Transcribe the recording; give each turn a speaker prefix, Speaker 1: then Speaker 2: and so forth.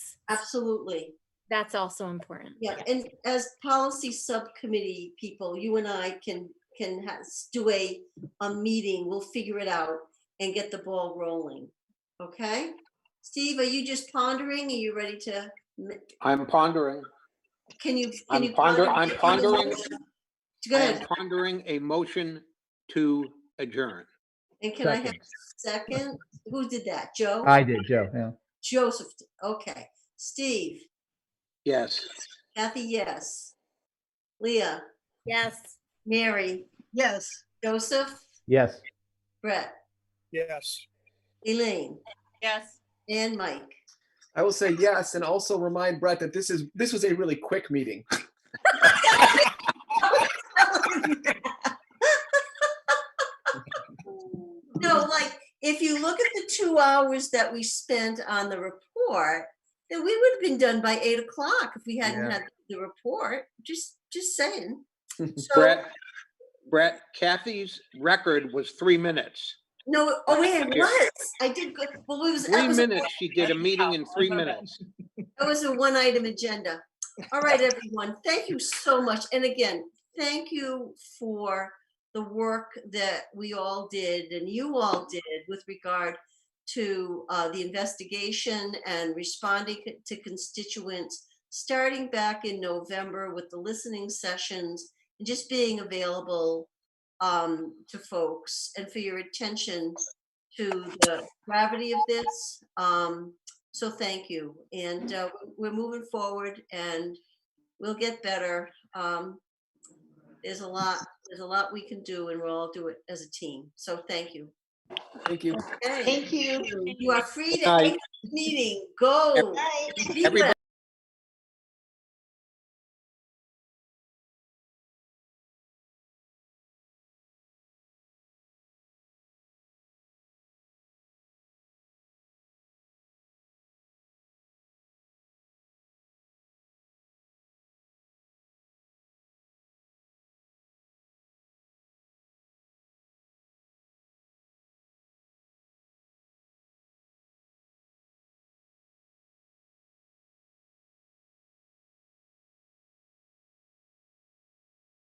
Speaker 1: Absolutely.
Speaker 2: That's also important.
Speaker 1: Yeah, and as policy subcommittee people, you and I can, can ha- s- do a, a meeting, we'll figure it out and get the ball rolling, okay? Steve, are you just pondering? Are you ready to, m-
Speaker 3: I'm pondering.
Speaker 1: can you? can
Speaker 3: I'm
Speaker 1: you
Speaker 3: ponder-
Speaker 1: ponder-
Speaker 3: I'm pondering.
Speaker 1: Go
Speaker 3: I'm
Speaker 1: ahead,
Speaker 3: pondering a motion to adjourn.
Speaker 1: and can I have a
Speaker 4: Second.
Speaker 1: second? Who did that? Joe?
Speaker 4: I did, Joe, yeah.
Speaker 1: Joseph, did- okay. Steve,
Speaker 3: Yes.
Speaker 1: Kathy, yes. Leah,
Speaker 2: Yes.
Speaker 1: Mary,
Speaker 5: Yes.
Speaker 1: Joseph,
Speaker 4: Yes.
Speaker 1: Brett,
Speaker 6: Yes.
Speaker 1: Elaine,
Speaker 2: Yes.
Speaker 1: and Mike.
Speaker 6: I will say yes, and also remind Brett that this is this was a really quick meeting.
Speaker 1: No, like, if you look at the two hours that we spent on the report, then we would have been done by eight o'clock if we hadn't
Speaker 6: Yeah.
Speaker 1: had the report, just, just saying. So,
Speaker 3: Brett, Brett, Kathy's record was three minutes.
Speaker 1: no, oh, wait, it
Speaker 3: Here.
Speaker 1: was, I did, go- well, it was, that
Speaker 3: Three
Speaker 1: was,
Speaker 3: minutes, she did a meeting in three minutes.
Speaker 1: that was a one-item agenda. All right, everyone, thank you so much, and again, thank you for the work that we all did and you all did with regard to uh, the investigation and responding c- to constituents, starting back in November with the listening sessions and just being available um, to folks and for your attention to the gravity of this. Um, so thank you. And uh, we're moving forward and we'll get better. Um, there's a lot, there's a lot we can do and we'll all do it as a team. So thank you.
Speaker 6: Thank you.
Speaker 1: Thank you. You are free to
Speaker 3: Night.
Speaker 1: end the meeting. Go. Be
Speaker 3: Everybody-